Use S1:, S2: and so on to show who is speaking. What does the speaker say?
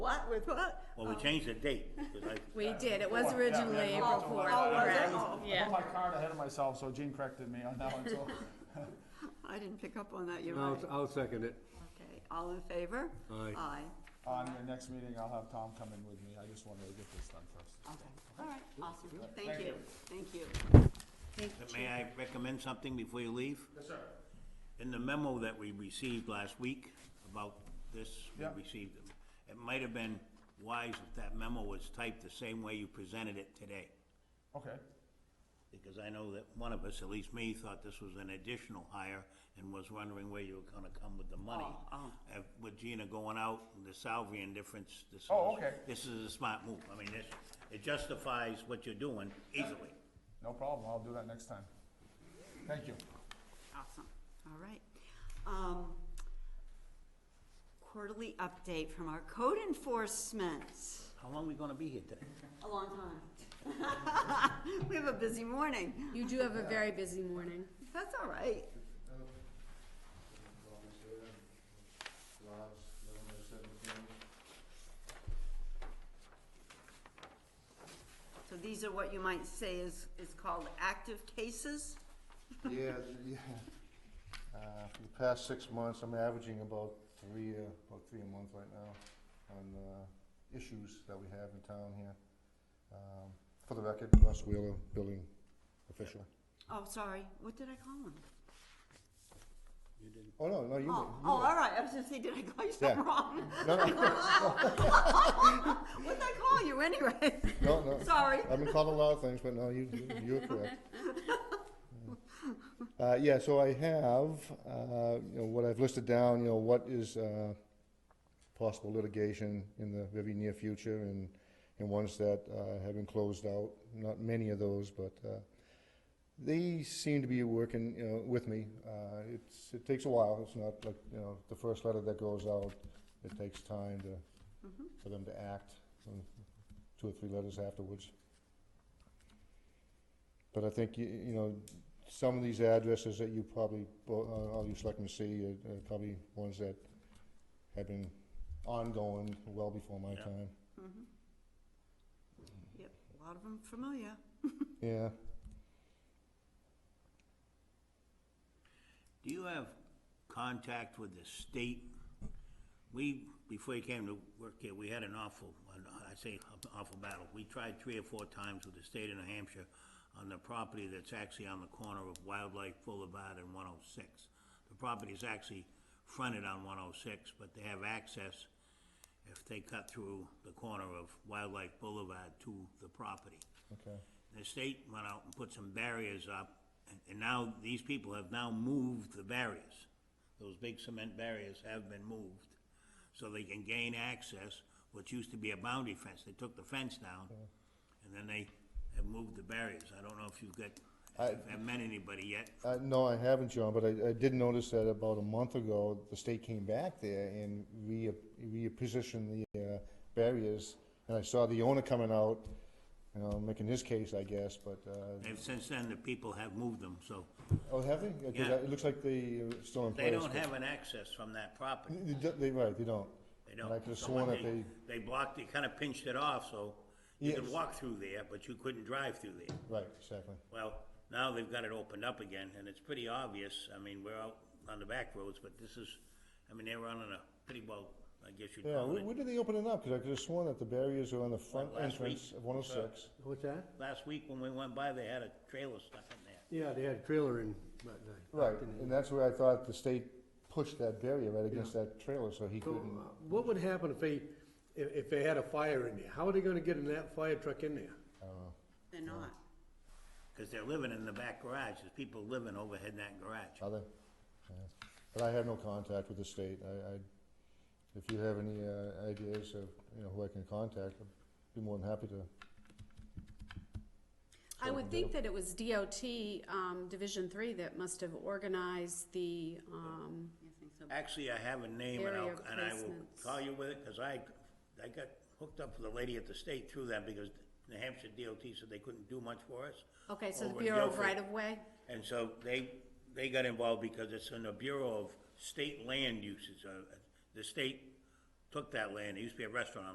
S1: with what?
S2: Well, we changed the date, 'cause I-
S3: We did, it was originally
S4: yeah,
S3: April
S4: yeah.
S3: fourth,
S1: was
S4: Oh,
S1: it?
S3: correct,
S1: Oh.
S4: I
S3: yeah.
S4: put my card ahead of myself, so Gene corrected me on that one, so.
S1: I didn't pick up on that, you're
S5: I'll,
S1: right.
S5: I'll second it.
S1: Okay, all in favor?
S5: Aye.
S1: Aye,
S4: On your next meeting, I'll have Tom come in with me, I just wanted to get this done first.
S1: okay, all right, awesome, thank
S4: Thank
S1: you,
S4: you.
S1: thank you.
S2: may I recommend something before you leave?
S4: Yes, sir.
S2: In the memo that we received last week about this, we
S4: Yeah.
S2: received, it. it might have been wise if that memo was typed the same way you presented it today.
S4: Okay,
S2: Because I know that one of us, at least me, thought this was an additional hire and was wondering where you were gonna come with the money.
S1: Oh, oh.
S2: Uh, With Gina going out, and the salary and difference, this is.
S4: Oh, okay.
S2: This is a smart move. I mean, this, it justifies what you're doing easily.
S4: no problem, I'll do that next time. Thank you.
S1: Awesome, all right. Um, quarterly update from our code enforcement.
S2: How long are we gonna be here today?
S1: A long time. We have a busy morning,
S3: You do have a very busy morning.
S1: that's all right. So these are what you might say is, is called active cases?
S6: Yeah, yeah. Uh, for the past six months, I'm averaging about three, uh, about three a month right now on, uh, issues that we have in town here. Um, for the record, Russ Wheeler, building official.
S1: Oh, sorry, what did I call him?
S6: Oh, no, no, you.
S1: Oh, oh, all right, I was gonna say, did I call you something
S6: Yeah.
S1: wrong?
S6: No, no,
S1: What did I call you anyway?
S6: no, no.
S1: Sorry.
S6: I've been called a lot of things, but no, you, you- you're correct. Uh, yeah, so I have, uh, you know, what I've listed down, you know, what is, uh, possible litigation in the very near future and, and ones that, uh, have been closed out. Not many of those, but, uh, they seem to be working, you know, with me. Uh, it's, it takes a while. It's not like, you know, the first letter that goes out, it takes time to, for them to act, and two or three letters afterwards. But I think, you, you know, some of these addresses that you probably, bo- uh, all you selectmen see are, are probably ones that have been ongoing well before my
S2: Yeah.
S6: time.
S1: Mhm. Yep, a lot of them familiar.
S6: Yeah.
S2: Do you have contact with the state? We, before you came to work here, we had an awful, an- I say awful battle. We tried three or four times with the state of New Hampshire on the property that's actually on the corner of Wildlife Boulevard and one oh six. The property is actually fronted on one oh six, but they have access if they cut through the corner of Wildlife Boulevard to the property
S6: Okay.
S2: the state went out and put some barriers up, and- and now, these people have now moved the barriers. Those big cement barriers have been moved, so they can gain access, which used to be a boundary fence, they took the fence down, and then they have moved the barriers, I don't know if you've got,
S6: I-
S2: if I've met anybody yet.
S6: Uh, no, I haven't, John, but I, I did notice that about a month ago, the state came back there and re, repositioned the, uh, barriers. And I saw the owner coming out, you know, making his case, I guess, but, uh,
S2: And since then, the people have moved them, so
S6: oh, have they? 'Cause
S2: Yeah.
S6: It looks like they are still in place.
S2: they don't
S6: but-
S2: have an access from that property.
S6: They- They, don't- they- right, they don't.
S2: They
S6: And
S2: don't.
S6: I could have
S2: So
S6: sworn
S2: when
S6: that they,
S2: They blocked, they kinda pinched it off, so you could
S6: Yes.
S2: walk through there, but you couldn't drive through there.
S6: right, exactly.
S2: Well, now they've got it opened up again, and it's pretty obvious, I mean, we're out on the back roads, but this is, I mean, they're running a pretty well, I guess you'd
S6: Yeah,
S2: call
S6: when,
S2: it.
S6: when did they open it up? Cause I could have sworn that the barriers are on the front
S2: last
S6: entrance
S2: week?
S6: of one oh six.
S5: What's that?
S2: Last week when we went by, they had a trailer stuck in there.
S5: Yeah, they had a trailer in, but, uh,
S6: Right, and that's where I thought the state pushed that barrier right against that trailer, so he
S5: so, uh,
S6: couldn't.
S5: what would happen if they, if, if they had a fire in there? How are they gonna get in that fire truck in there?
S1: They're not.
S2: Cause they're living in the back garage, there's people living overhead in that garage.
S6: Other, yeah. But I have no contact with the state. I, I, if you have any uh, ideas of, you know, who I can contact, I'd be more than happy to.
S3: I would think that it was DOT, um, Division Three that must have organized the, um,
S1: You think so?
S2: Actually, I have a name and I'll,
S3: Area
S2: and I will
S3: placements.
S2: call you with it, cause I, I got hooked up with the lady at the state through that because New Hampshire DOT said they couldn't do much for us.
S3: okay, so the
S2: over in
S3: Bureau of
S2: Guilford.
S3: Right of Way?
S2: And so they, they got involved because it's in the Bureau of State Land Uses. uh, The state took that land, it used to be a restaurant on